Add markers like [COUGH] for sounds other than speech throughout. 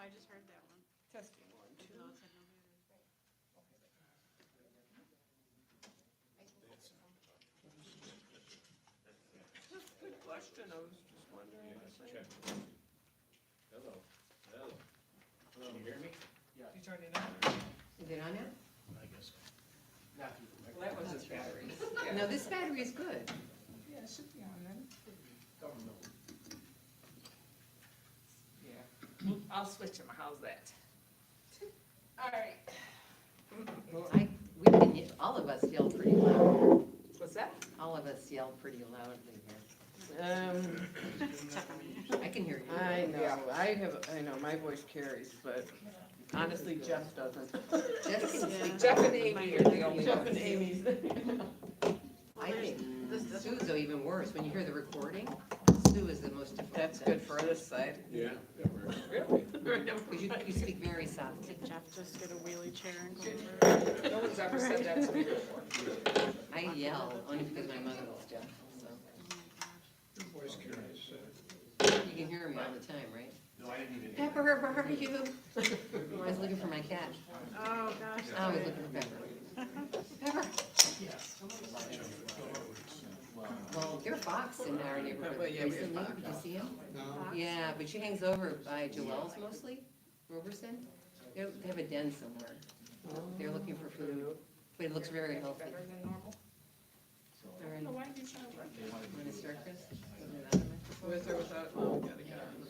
I just heard that one. Testing one, two. No, it said no battery. Good question, I was just wondering. the same. Check. Hello, hello. Can you hear me? You turned it on? Is it on now? I guess. Well, that was his battery. No, this battery is good. Yeah, it should be on then. Yeah, I'll switch him, how's that? All right. I, we can, ye- all of us yell pretty loud. What's that? All of us yell pretty loudly Um, here. I can hear you. I know, I have, I know, my voice carries, but honestly, Jeff doesn't. Just can Yeah. sleep. Jeff and Amy are the only Jeff and ones. Amy's. I think This, this one, Sue's even worse. When you hear the recording, Sue is the most difficult. That's good for this side. Yeah. that works. Really? Because you, you speak very softly. did Jeff just get a wheelie chair and go over? it? No one's ever said that to me before. I yell only because my mother was deaf, so. You can hear me all the time, right? No, I didn't even. Pepper, where are you? [LAUGHS] I was looking for my cat. Oh, gosh. I was looking for Pepper. Pepper. Well, there are fox in our Well, neighborhood yeah, we have recently. fox. Did you see him? Yeah, but she hangs over by Joel's mostly, Roberson. They they have a den somewhere. They're looking for food, but it looks very healthy. Better than normal? All right, Oh, Why did you sound like that? want to start, Chris? Put it on. With or without, oh, we gotta get on.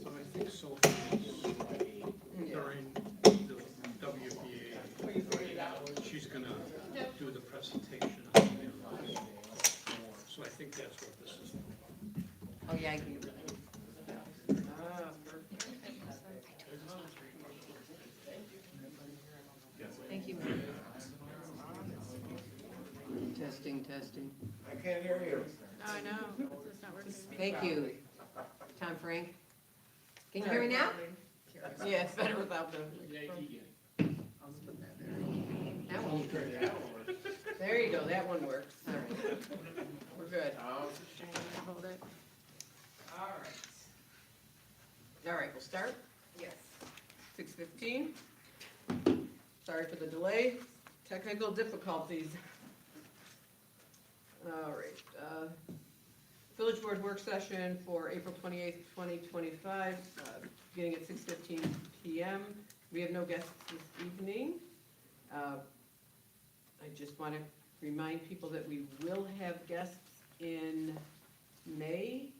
So I think so during the WBA, she's gonna do the presentation. on the mail. So I think that's what this is. Oh, yeah, I can. Thank you. Testing, testing. I can't hear you. Oh, I know, it's not working. Thank you. Tom Frank. Can you hear me now? Yeah, it's better without them. That one. There you go, that one works. All right. We're good. Oh. Trying to Hold it. All right. All right, we'll start? Yes. Six fifteen. Sorry for the delay, technical difficulties. All right, uh, village board work session for April twenty-eighth, twenty twenty-five, uh, beginning at six fifteen PM. We have no guests this evening. Uh, I just want to remind people that we will have guests in May.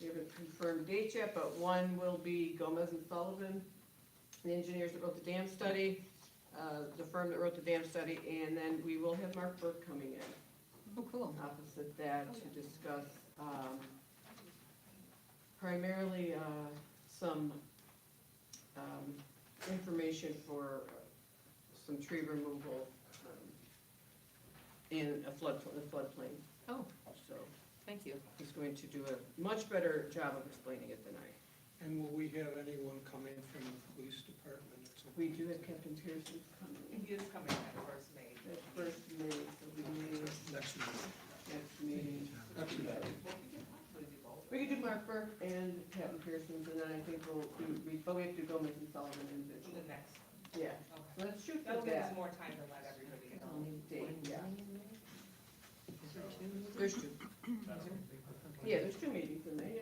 We haven't confirmed dates yet, but one will be Gomez and Sullivan, the engineers that wrote the dam study, uh, the firm that wrote the dam study, and then we will have Mark Burke coming in Oh, cool. opposite that to discuss um, primarily uh, some um, information for uh, some tree removal um, in a flood, the floodplain. Oh. So Thank you. he's going to do a much better job of explaining it than I. And will we have anyone coming from the police department? or something? We do have Captain Pearson coming. He is coming at first May. That first meeting, so we may, Next meeting. next meeting. Next meeting. We could do Mark Burke and Captain Pearson, and then I think we'll, do- we, but we have to go make and Sullivan individually. The next one. Yeah, Okay. let's shoot for That'll give us that. more time to let everybody know. Um, date, yeah. Is there two? There's two. Yeah, there's two meetings in there, yeah.